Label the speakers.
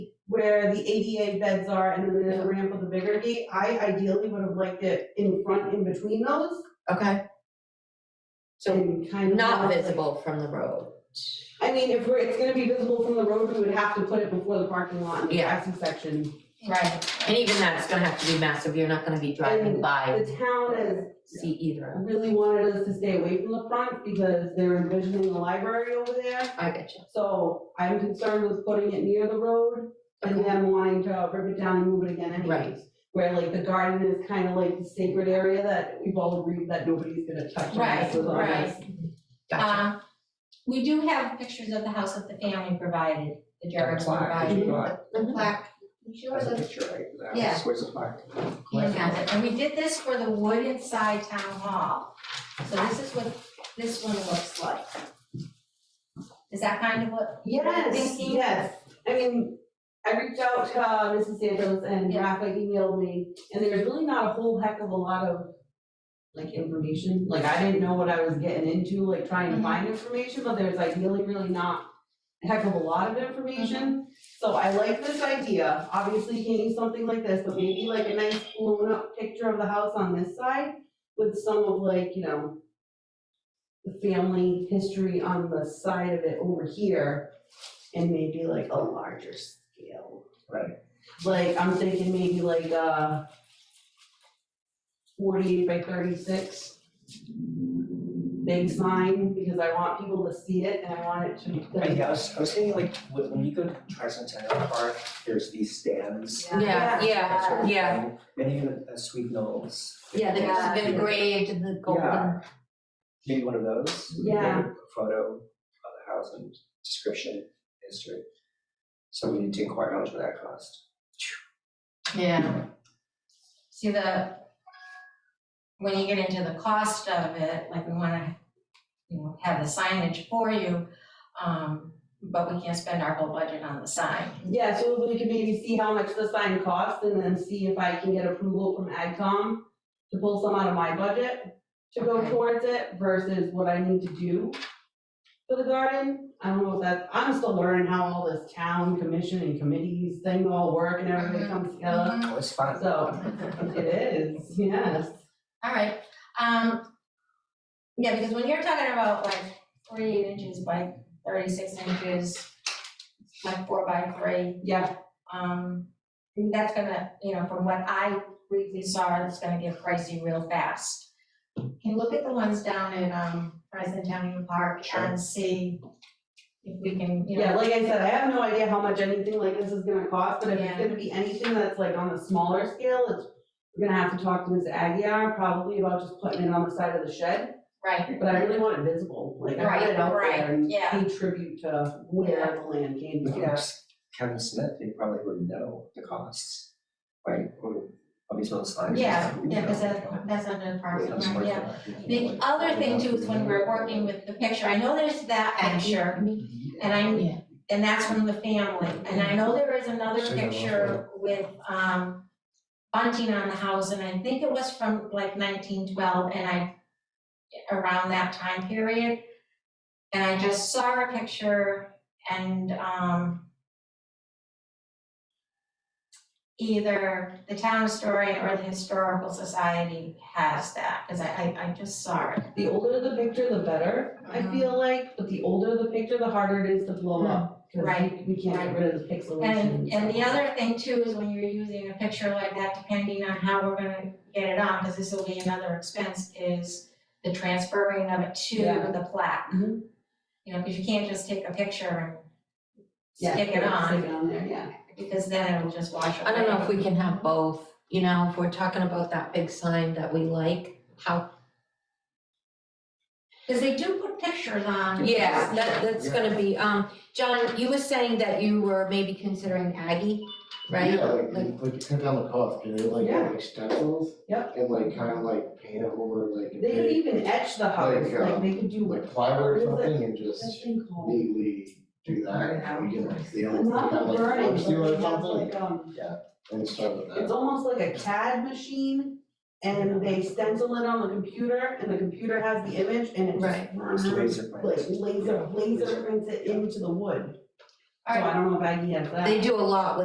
Speaker 1: where the ADA beds are and then there's a ramp with a bigger gate. I ideally would have liked it in front, in between those
Speaker 2: okay? So
Speaker 1: and kind of. have,
Speaker 2: not
Speaker 1: like-
Speaker 2: visible from the road.
Speaker 1: I mean, if we're, it's gonna be visible from the road, we would have to put it before the parking lot in the
Speaker 2: Yeah.
Speaker 1: grassy section.
Speaker 2: Right. And even that's gonna have to be massive, you're not gonna be driving
Speaker 1: And
Speaker 2: by,
Speaker 1: The town has
Speaker 2: see either,
Speaker 1: really wanted us to stay away from the front because they're envisioning the library over there.
Speaker 2: I get you.
Speaker 1: So I'm concerned with putting it near the road and
Speaker 2: Okay.
Speaker 1: them wanting to rip it down and move it again anyways. Where like the garden is kind of like the sacred area that we've all agreed that nobody's gonna touch unless it's
Speaker 3: Right,
Speaker 1: on us.
Speaker 3: right.
Speaker 2: Gotcha,
Speaker 3: Um, we do have pictures of the house that the family provided, the Jarrett's provided, the
Speaker 2: Mm-hmm.
Speaker 3: plaque. You sure
Speaker 4: That's a
Speaker 3: the-
Speaker 4: picture, right? That
Speaker 3: Yeah.
Speaker 4: was- Where's the plaque?
Speaker 3: Ian has it, and we did this for the wood inside town hall. So this is what this one looks like. Is that kind of what?
Speaker 1: Yes,
Speaker 3: Thinking?
Speaker 1: yes. I mean, I reached out to uh, Mrs. Santos and
Speaker 3: Yeah.
Speaker 1: Rafa emailed me, and there's really not a whole heck of a lot of like information. Like I didn't know what I was getting into, like trying to
Speaker 3: Mhm.
Speaker 1: find information, but there's like really, really not a heck of a lot of information. So I like this idea. Obviously, you need something like this, but maybe like a nice blown up picture of the house on this side with some of like, you know, the family history on the side of it over here and maybe like a larger scale.
Speaker 4: Right.
Speaker 1: Like, I'm thinking maybe like uh forty-eight by thirty-six big sign, because I want people to see it and I want it
Speaker 4: I,
Speaker 1: to.
Speaker 4: yeah, I was, I was thinking like, when when you go to Tricentennial Park, there's these stands.
Speaker 2: yeah,
Speaker 4: that sort
Speaker 2: yeah,
Speaker 4: of
Speaker 2: yeah,
Speaker 4: thing, And even uh, Sweet Knolls,
Speaker 2: yeah,
Speaker 3: Yeah.
Speaker 2: they've been engraved in the golden,
Speaker 4: Yeah. maybe one of those. with
Speaker 1: Yeah.
Speaker 4: a Photo of the house and description, history. So we need to inquire how much would that cost.
Speaker 3: Yeah. See the, when you get into the cost of it, like we wanna, you know, have the signage for you, um, but we can't spend our whole budget on the sign.
Speaker 1: Yeah, so we could maybe see how much the sign costs and then see if I can get approval from AgCom to pull some out of my budget to go
Speaker 3: Okay.
Speaker 1: towards it versus what I need to do for the garden. I don't know if that's, I'm still learning how all this town commission and committees thing all work and everything
Speaker 3: Mhm.
Speaker 1: comes together.
Speaker 2: Mm-hmm.
Speaker 4: It was fun.
Speaker 1: So it is, yes.
Speaker 3: All right, um, yeah, because when you're talking about like forty-eight inches by thirty-six inches, like four by three,
Speaker 1: Yeah,
Speaker 3: um, I mean, that's gonna, you know, from what I briefly saw, it's gonna get pricey real fast. Can look at the ones down in, um, Presentation Park
Speaker 4: Sure.
Speaker 3: and see if we can, you know.
Speaker 1: yeah, like I said, I have no idea how much anything like this is gonna cost, but if it's
Speaker 3: Yeah.
Speaker 1: gonna be anything that's like on a smaller scale, it's, we're gonna have to talk to Ms. Aguirre probably about just putting it on the side of the shed.
Speaker 3: Right,
Speaker 1: But I really want it visible, like I want
Speaker 3: Right,
Speaker 1: it out there
Speaker 3: right,
Speaker 1: and
Speaker 3: yeah.
Speaker 1: pay tribute to where the land came
Speaker 4: You
Speaker 1: from.
Speaker 4: could ask Kevin Smith, he probably would know the costs, right? Of these little signs.
Speaker 3: yeah, yeah, because
Speaker 4: You
Speaker 3: that's,
Speaker 4: know.
Speaker 3: that's under
Speaker 4: When it
Speaker 3: parks
Speaker 4: comes
Speaker 3: and
Speaker 4: to
Speaker 3: Rec, yeah.
Speaker 4: parking lot, you know,
Speaker 3: The
Speaker 4: like-
Speaker 3: other thing too is when we're working with the picture, I know there's that picture, and I'm,
Speaker 2: Yeah.
Speaker 3: and that's from the family, and I know there is another
Speaker 4: Sure,
Speaker 3: picture with, um, bunting on the house, and I think it was from like nineteen twelve, and I, around that time period, and I just saw a picture, and, um, either the town historian or the historical society has that, because I, I, I just saw it.
Speaker 1: The older the picture, the better, I
Speaker 3: Mhm.
Speaker 1: feel like, but the older the picture, the harder it is to blow up. 'cause we-
Speaker 3: Right,
Speaker 1: We can't get
Speaker 3: right.
Speaker 1: rid of the pixelation.
Speaker 3: And, and the
Speaker 1: stuff.
Speaker 3: other thing too is when you're using a picture like that, depending on how we're gonna get it on, because this will be another expense, is the transferring of it to
Speaker 1: Yeah.
Speaker 3: the plaque.
Speaker 2: Mm-hmm.
Speaker 1: Mhm.
Speaker 3: You know, because you can't just take a picture and
Speaker 1: Yeah,
Speaker 3: stick it on,
Speaker 1: Stick it on there, yeah.
Speaker 3: because then it'll just wash away.
Speaker 2: I don't know if we can have both, you know, if we're talking about that big sign that we like, how,
Speaker 3: Because they do put pictures on.
Speaker 2: yeah, that, that's
Speaker 4: Yeah.
Speaker 2: gonna be, um, John, you were saying that you were maybe considering Aggie, right?
Speaker 5: Yeah, like,
Speaker 2: Like-
Speaker 5: like you cut down the cost, you know, like,
Speaker 1: Yeah.
Speaker 5: like stencils.
Speaker 1: Yep.
Speaker 5: And like kind of like paint it over like a
Speaker 1: They could
Speaker 5: big,
Speaker 1: even etch the house,
Speaker 5: Like, uh,
Speaker 1: like they could do like,
Speaker 5: like plywood or
Speaker 1: What is it?
Speaker 5: something and
Speaker 1: that
Speaker 5: just
Speaker 1: thing called?
Speaker 5: neatly do that. And we get like the old,
Speaker 1: Not the
Speaker 5: like
Speaker 1: burning,
Speaker 5: floor
Speaker 1: but
Speaker 5: seal
Speaker 1: it
Speaker 5: or
Speaker 1: has
Speaker 5: something
Speaker 1: like, um,
Speaker 5: and start with
Speaker 1: it's
Speaker 5: that.
Speaker 1: almost like a CAD machine and they stencil it on the computer and the computer has the image and it
Speaker 2: Right.
Speaker 1: just
Speaker 4: It's
Speaker 1: runs
Speaker 4: laser print.
Speaker 1: like laser, laser prints it into the wood. So I don't know if Aggie has that.
Speaker 2: They do a lot with